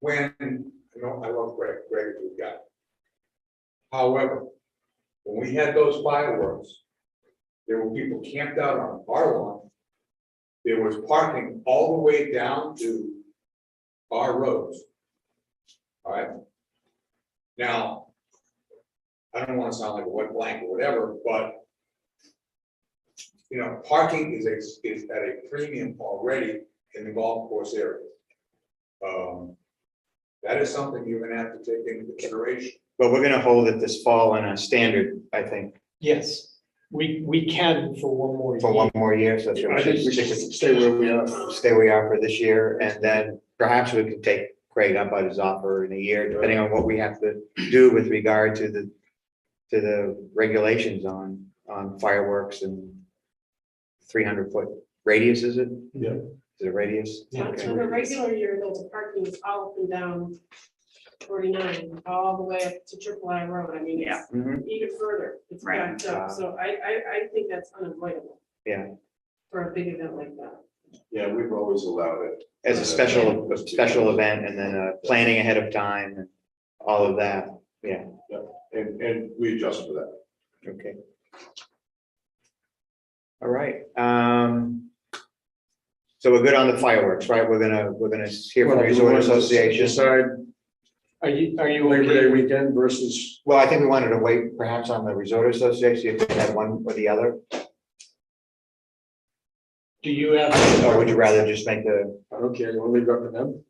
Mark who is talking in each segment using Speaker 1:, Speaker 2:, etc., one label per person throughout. Speaker 1: when, you know, I love Greg, Greg is a good guy. However, when we had those fireworks, there were people camped out on our lawn. There was parking all the way down to our roads. All right? Now, I don't wanna sound like a wet blanket or whatever, but you know, parking is a, is at a premium already in the golf course area. Um, that is something you're gonna have to take into consideration.
Speaker 2: But we're gonna hold it this fall on a standard, I think,
Speaker 3: Yes, we, we can for one more.
Speaker 2: for one more year, so. that's what
Speaker 4: I think we should stay where we are.
Speaker 2: Stay where we are for this year, and then perhaps we could take Craig up on his offer in a year, depending on what we have to do with regard to the. To the regulations on, on fireworks and. Three hundred foot radius, is it?
Speaker 4: Yeah.
Speaker 2: Is it radius?
Speaker 3: Yeah.
Speaker 5: So in a regular year, the parking is all up and down forty-nine, all the way up to Triple I Road, I mean, it's
Speaker 2: Mhm.
Speaker 5: even further, it's
Speaker 6: Right.
Speaker 5: backed up, so I, I, I think that's unavoidable.
Speaker 2: Yeah.
Speaker 5: For a big event like that.
Speaker 4: Yeah, we've always allowed it.
Speaker 2: As a special, a special event, and then, uh, planning ahead of time, and all of that,
Speaker 4: And, and we adjust for that.
Speaker 2: okay. All right, um. So we're good on the fireworks, right? We're gonna, we're gonna hear from the Resort Association.
Speaker 4: Decide
Speaker 3: Are you, are you
Speaker 4: Labor Day
Speaker 3: okay?
Speaker 4: weekend versus,
Speaker 2: Well, I think we wanted to wait perhaps on the Resort Association, if they had one or the other,
Speaker 3: Do you have?
Speaker 2: or would you rather just make the,
Speaker 4: I don't care, you want to leave it up to them?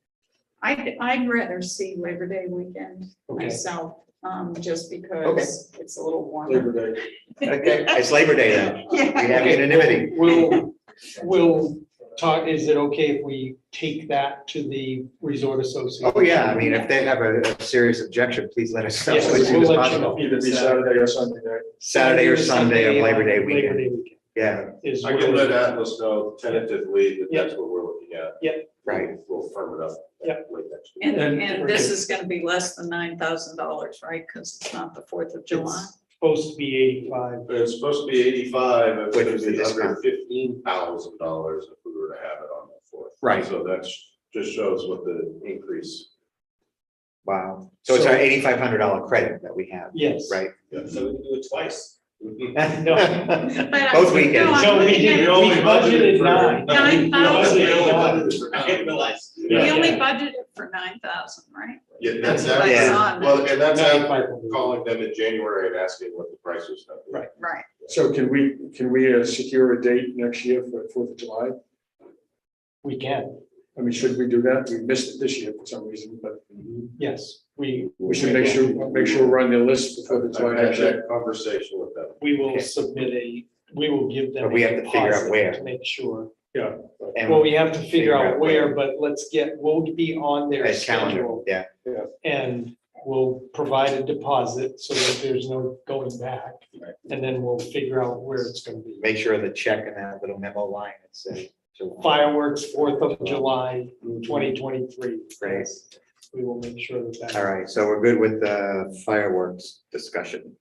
Speaker 6: I'd, I'd rather see Labor Day weekend
Speaker 4: Okay.
Speaker 6: myself, um, just because it's a little warmer.
Speaker 4: Labor Day.
Speaker 2: okay, it's Labor Day then, we
Speaker 6: Yeah,
Speaker 2: have anonymity.
Speaker 3: We'll, we'll talk, is it okay if we take that to the resort association?
Speaker 2: Oh, yeah, I mean, if they have a a serious objection, please let us know as
Speaker 3: Yes,
Speaker 2: soon as
Speaker 3: we'll let you
Speaker 2: possible.
Speaker 3: know.
Speaker 4: Either be Saturday or Sunday night.
Speaker 2: Saturday or Sunday of Labor Day
Speaker 3: Labor
Speaker 2: weekend,
Speaker 3: Day weekend
Speaker 2: yeah,
Speaker 3: is
Speaker 4: I can let uh,
Speaker 3: where-
Speaker 4: Atlas know tentatively that
Speaker 3: Yeah.
Speaker 4: that's what we're looking at.
Speaker 2: right,
Speaker 4: We'll firm it up.
Speaker 3: Yeah.
Speaker 4: late next week.
Speaker 6: and, and this is gonna be less than nine thousand dollars, right? Because it's not the Fourth of July.
Speaker 3: It's Supposed to be eighty-five.
Speaker 4: But It's supposed to be eighty-five, and it's
Speaker 2: Which
Speaker 4: gonna
Speaker 2: is the
Speaker 4: be
Speaker 2: discount.
Speaker 4: under fifteen thousand dollars if we were to have it on the fourth.
Speaker 2: Right.
Speaker 4: So that's, just shows what the increase.
Speaker 2: wow. So it's our eighty-five hundred dollar credit that we have,
Speaker 3: Yes.
Speaker 2: right?
Speaker 4: So we can do it twice.
Speaker 6: But I-
Speaker 2: Both weekends.
Speaker 6: no, I'm
Speaker 3: No, we
Speaker 6: looking
Speaker 3: did,
Speaker 6: at-
Speaker 3: we
Speaker 4: only budgeted
Speaker 3: budgeted
Speaker 4: for-
Speaker 3: nine.
Speaker 6: Nine thousand.
Speaker 4: I didn't realize.
Speaker 6: We
Speaker 3: Yeah.
Speaker 6: only budgeted for nine thousand, right?
Speaker 4: Yeah, that's,
Speaker 3: That's what
Speaker 6: I
Speaker 4: after-
Speaker 6: saw in
Speaker 4: well, and that's after
Speaker 3: 9,500.
Speaker 4: calling them in January and asking what the price was. gonna be.
Speaker 3: Right.
Speaker 6: Right.
Speaker 7: So can we, can we uh, secure a date next year for Fourth of July?
Speaker 3: We can,
Speaker 7: I mean, should we do that? We missed it this year for some reason, but
Speaker 3: yes, we,
Speaker 7: we should make sure, make sure we're on the list before the July
Speaker 4: I've had
Speaker 7: next year.
Speaker 4: that conversation with them.
Speaker 3: we will
Speaker 2: Okay.
Speaker 3: submit a, we will give them.
Speaker 2: But we
Speaker 3: a
Speaker 2: have to figure out
Speaker 3: deposit
Speaker 2: where.
Speaker 3: To make sure.
Speaker 2: And
Speaker 3: Well, we have to figure out where, but let's get, we'll be on their
Speaker 2: as calendar,
Speaker 3: schedule.
Speaker 2: yeah,
Speaker 3: And we'll provide a deposit so that there's no going back. And then we'll figure out where it's gonna be.
Speaker 2: make sure the check and that little memo line, it says. July.
Speaker 3: Fireworks, Fourth of July, twenty twenty-three.
Speaker 2: mm-hmm. Great.
Speaker 3: We will make sure that that.
Speaker 2: All right, so we're good with the fireworks discussion.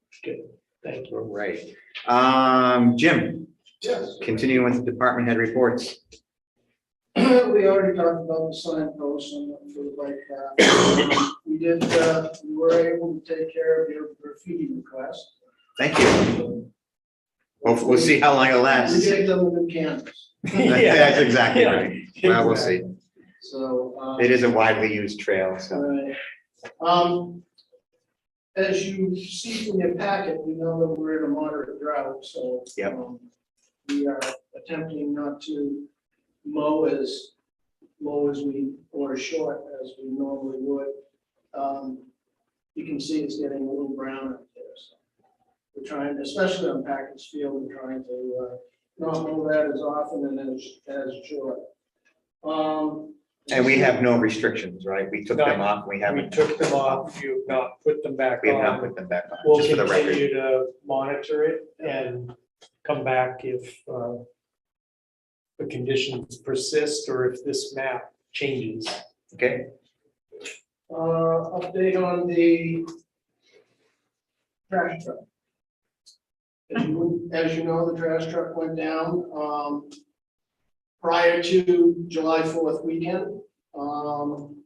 Speaker 3: Thank you.
Speaker 2: All Right. Um, Jim,
Speaker 8: Yes,
Speaker 2: continuing with the department head reports.
Speaker 8: we already talked about the sign posts and the like that. We did, uh, we were able to take care of your graffiti request.
Speaker 2: Thank you.
Speaker 8: so
Speaker 2: We'll, we'll see how long it
Speaker 8: We
Speaker 2: lasts.
Speaker 8: gave them a new canvas,
Speaker 2: That's exactly
Speaker 3: Yeah.
Speaker 2: right. Well, we'll see.
Speaker 8: so. um,
Speaker 2: It is a widely used trail, so.
Speaker 8: Right. Um, as you see from your packet, we know that we're in a moderate drought, so.
Speaker 2: Yep.
Speaker 8: um, We are attempting not to mow as low as we, or short as we normally would. Um, You can see it's getting a little brown up there, so. We're trying, especially on Packers Field, we're trying to, uh, not mow that as often and as, as short. Um.
Speaker 2: And we have no restrictions, right? We took them off. We
Speaker 3: We
Speaker 2: haven't,
Speaker 3: took them off, you have not put them back
Speaker 2: we have not
Speaker 3: on.
Speaker 2: put them back on,
Speaker 3: We'll
Speaker 2: just for the record.
Speaker 3: continue to monitor it and come back if uh, the conditions persist or if this map changes.
Speaker 2: Okay,
Speaker 8: Uh, update on the trash truck. As you, as you know, the trash truck went down, um, prior to July fourth weekend. Um,